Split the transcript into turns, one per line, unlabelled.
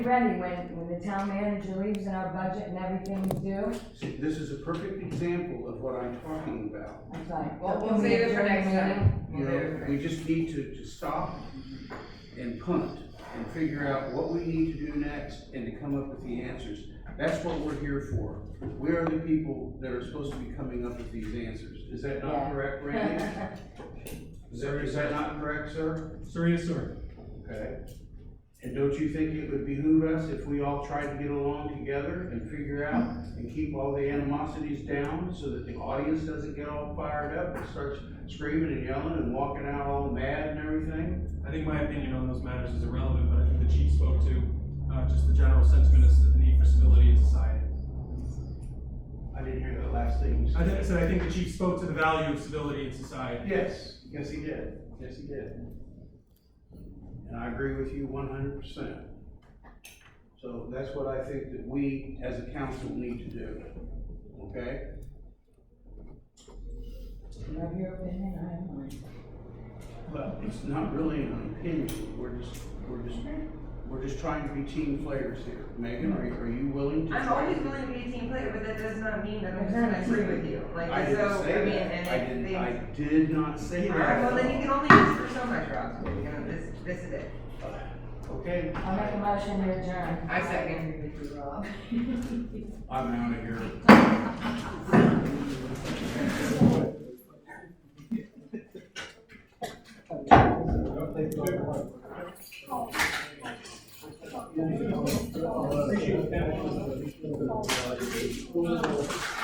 Randy, when, when the town manager leaves and our budget and everything's due,
See, this is a perfect example of what I'm talking about.
I'm like,
Well,
well,
we'll save it for next time.
You
We'll save it
know,
for-
we just need to, to stop and punt and figure out what we need to do next and to come up with the answers. That's what we're here for. We are the people that are supposed to be coming up with these answers. Is that not
Yeah.
correct, Randy? Is that, is that not correct, sir?
Sir, yes, sir.
Okay. And don't you think it would behoove us if we all tried to get along together and figure out and keep all the animosities down so that the audience doesn't get all fired up and starts screaming and yelling and walking out all mad and everything?
I think my opinion on those matters is irrelevant, but I think the chief spoke to, uh, just the general sentiment of the need for civility in society.
I didn't hear that last thing you
I think,
said.
I said I think the chief spoke to the value of civility in society.
Yes, yes, he did. Yes, he did. And I agree with you one hundred percent. So that's what I think that we, as a council, need to do, okay?
you have your opinion, I have mine.
Well, it's not really an opinion, we're just, we're just, we're just trying to be team players here. Megan, are you, are you willing to?
I'm
try
always
to-
willing to be a team player, but that does not mean that I'm just gonna agree with you, like,
I didn't
so, I
say
mean,
that, I
and if
did,
they.
I did not say
Alright, well, then you
that.
can only ask for so much, Rob, you know, this, this is it.
Okay,
I'll make a motion to adjourn.
I second.
I'm out of here.